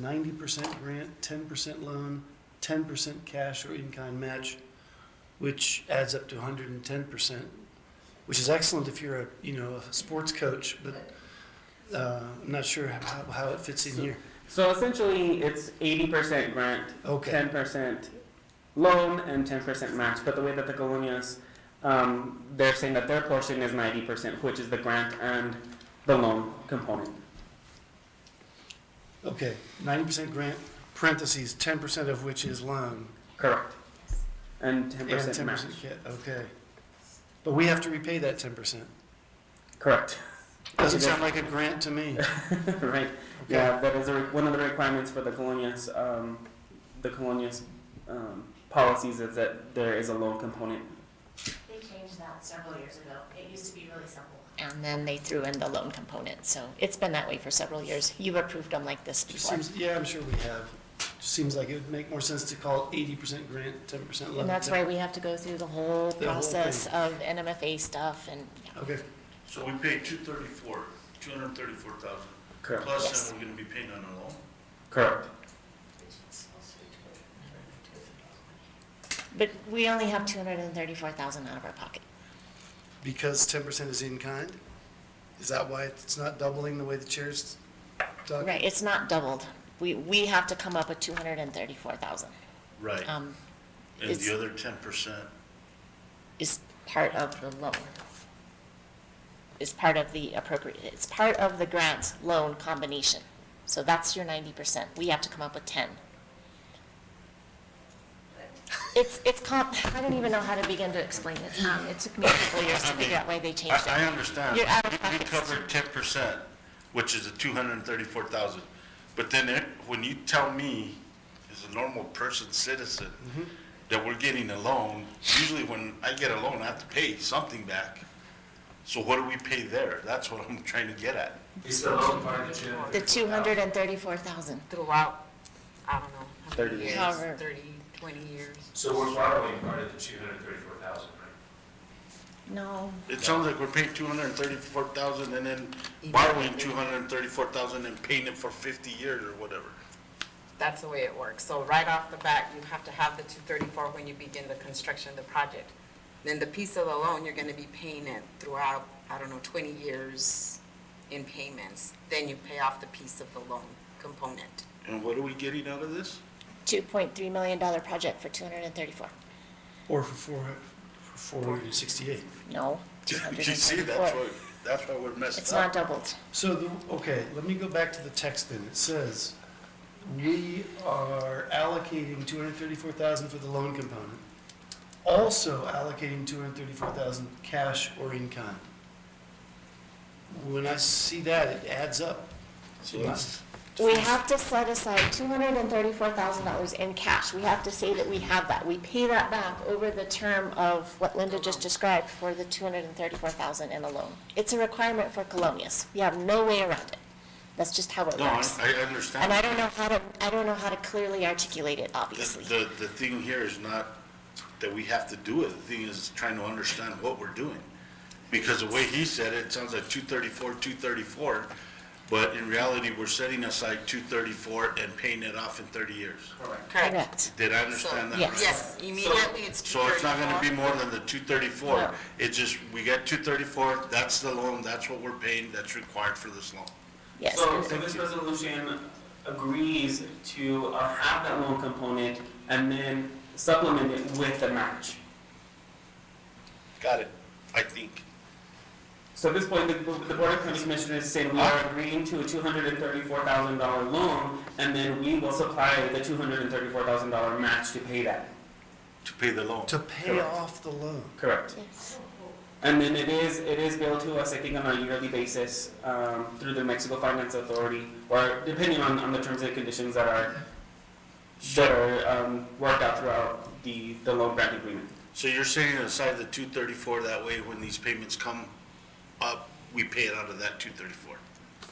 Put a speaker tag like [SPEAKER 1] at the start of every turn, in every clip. [SPEAKER 1] ninety percent grant, ten percent loan, ten percent cash or in-kind match, which adds up to hundred and ten percent, which is excellent if you're a, you know, a sports coach, but, uh, I'm not sure how, how it fits in here.
[SPEAKER 2] So essentially, it's eighty percent grant,
[SPEAKER 1] Okay,
[SPEAKER 2] ten percent loan, and ten percent match. But the way that the Colonias, um, they're saying that their portion is ninety percent, which is the grant and the loan component.
[SPEAKER 1] okay, ninety percent grant, parentheses, ten percent of which is loan,
[SPEAKER 2] Correct. And ten
[SPEAKER 1] and
[SPEAKER 2] percent
[SPEAKER 1] ten
[SPEAKER 2] match.
[SPEAKER 1] percent ca- okay. But we have to repay that ten percent.
[SPEAKER 2] Correct.
[SPEAKER 1] Doesn't sound like a grant to me.
[SPEAKER 2] right. Yeah, that is a, re- one of the requirements for the Colonias, um, the Colonias um, policies is that there is a loan component.
[SPEAKER 3] They changed that several years ago. It used to be really simple.
[SPEAKER 4] and then they threw in the loan component. So it's been that way for several years. You've approved them like this
[SPEAKER 1] Just
[SPEAKER 4] before.
[SPEAKER 1] seems, yeah, I'm sure we have. Just seems like it would make more sense to call eighty percent grant, ten percent loan.
[SPEAKER 4] And that's why we have to go through the whole
[SPEAKER 1] The whole
[SPEAKER 4] process of NMFA stuff and,
[SPEAKER 1] Okay,
[SPEAKER 5] So we paid two thirty-four, two hundred and thirty-four thousand,
[SPEAKER 2] Correct.
[SPEAKER 5] plus then we're gonna be paying on a loan.
[SPEAKER 2] Correct.
[SPEAKER 4] but we only have two hundred and thirty-four thousand out of our pocket.
[SPEAKER 1] because ten percent is in kind? Is that why it's not doubling the way the chair's talking?
[SPEAKER 4] Right, it's not doubled. We, we have to come up with two hundred and thirty-four thousand.
[SPEAKER 5] Right,
[SPEAKER 4] Um,
[SPEAKER 5] and
[SPEAKER 4] it's-
[SPEAKER 5] the other ten percent,
[SPEAKER 4] is part of the loan. Is part of the appropriate, it's part of the grant loan combination. So that's your ninety percent. We have to come up with ten. It's, it's com, I don't even know how to begin to explain it. Um, it took me a couple years to figure out why they changed it.
[SPEAKER 5] I, I understand.
[SPEAKER 4] You're out of
[SPEAKER 5] You-
[SPEAKER 4] pocket.
[SPEAKER 5] You covered ten percent, which is the two hundred and thirty-four thousand. But then it, when you tell me, as a normal person, citizen,
[SPEAKER 4] Mm-hmm.
[SPEAKER 5] that we're getting a loan, usually when I get a loan, I have to pay something back. So what do we pay there? That's what I'm trying to get at.
[SPEAKER 6] It's the loan part that you.
[SPEAKER 4] The two hundred and thirty-four thousand.
[SPEAKER 7] throughout, I don't know, how
[SPEAKER 2] 30
[SPEAKER 7] many years,
[SPEAKER 4] However.
[SPEAKER 7] 30, 20 years.
[SPEAKER 6] So we're borrowing part of the two hundred thirty-four thousand, right?
[SPEAKER 4] No,
[SPEAKER 5] It sounds like we're paying two hundred and thirty-four thousand and then borrowing two hundred and thirty-four thousand and paying it for fifty years or whatever.
[SPEAKER 7] That's the way it works. So right off the bat, you have to have the 234 when you begin the construction of the project. Then the piece of the loan, you're going to be paying it throughout, I don't know, 20 years in payments. Then you pay off the piece of the loan component.
[SPEAKER 5] And what are we getting out of this?
[SPEAKER 4] two point three million dollar project for two hundred and thirty-four.
[SPEAKER 1] Or for four, for four hundred and sixty-eight?
[SPEAKER 4] No,
[SPEAKER 5] You
[SPEAKER 4] two hundred and
[SPEAKER 5] see, that's
[SPEAKER 4] thirty-four.
[SPEAKER 5] why, that's why we're
[SPEAKER 4] It's
[SPEAKER 5] messing
[SPEAKER 4] not
[SPEAKER 5] up.
[SPEAKER 4] doubled.
[SPEAKER 1] So the, okay, let me go back to the text then. It says, we are allocating two hundred thirty-four thousand for the loan component, also allocating two hundred thirty-four thousand cash or in kind. When I see that, it adds up.
[SPEAKER 5] So that's-
[SPEAKER 4] We have to set aside two hundred and thirty-four thousand dollars in cash. We have to say that we have that. We pay that back over the term of what Linda just described for the two hundred and thirty-four thousand in a loan. It's a requirement for Colonias. We have no way around it. That's just how it
[SPEAKER 5] No, I,
[SPEAKER 4] works.
[SPEAKER 5] I
[SPEAKER 4] And I
[SPEAKER 5] understand.
[SPEAKER 4] don't know how to, I don't know how to clearly articulate it,
[SPEAKER 5] The,
[SPEAKER 4] obviously.
[SPEAKER 5] the, the thing here is not that we have to do it, the thing is trying to understand what we're doing. Because the way he said it, it sounds like two thirty-four, two thirty-four, but in reality, we're setting aside two thirty-four and paying it off in thirty years.
[SPEAKER 6] Correct.
[SPEAKER 4] Correct.
[SPEAKER 5] Did I understand that?
[SPEAKER 4] Oh. Yes.
[SPEAKER 5] right?
[SPEAKER 7] Yes, immediately it's
[SPEAKER 5] So it's not gonna be
[SPEAKER 7] 234.
[SPEAKER 5] more than the two thirty-four,
[SPEAKER 4] No.
[SPEAKER 5] it's just, we got two thirty-four, that's the loan, that's what we're paying, that's required for this loan.
[SPEAKER 4] Yes.
[SPEAKER 2] So, so this resolution agrees to uh, have that loan component and then supplement it with the match.
[SPEAKER 5] Got it, I think.
[SPEAKER 2] So at this point, the, the Board of County Commissioners is saying we are agreeing to a two hundred and thirty-four thousand dollar loan, and then we will supply the two hundred and thirty-four thousand dollar match to pay that.
[SPEAKER 5] To pay the loan.
[SPEAKER 1] To pay
[SPEAKER 2] Correct.
[SPEAKER 1] off the loan.
[SPEAKER 2] Correct.
[SPEAKER 4] Yes.
[SPEAKER 2] And then it is, it is billed to us, I think, on a yearly basis, um, through the Mexico Finance Authority, or depending on, on the terms and conditions that are, that are, um, worked out throughout the, the loan grant agreement.
[SPEAKER 5] So you're setting aside the two thirty-four, that way when these payments come up, we pay it out of that two thirty-four?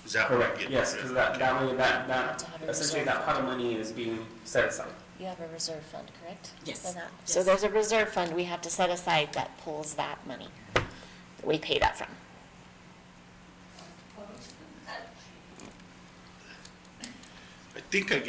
[SPEAKER 5] Is that what I'm
[SPEAKER 2] Correct,
[SPEAKER 5] getting
[SPEAKER 2] yes,
[SPEAKER 5] at?
[SPEAKER 2] because that, that way, that, that,
[SPEAKER 4] To have it
[SPEAKER 2] essentially that pot of money is being set aside.
[SPEAKER 4] You have a reserve fund, correct?
[SPEAKER 7] Yes.
[SPEAKER 4] For that? So there's a reserve fund we have to set aside that pulls that money. that We pay that from.
[SPEAKER 5] I think I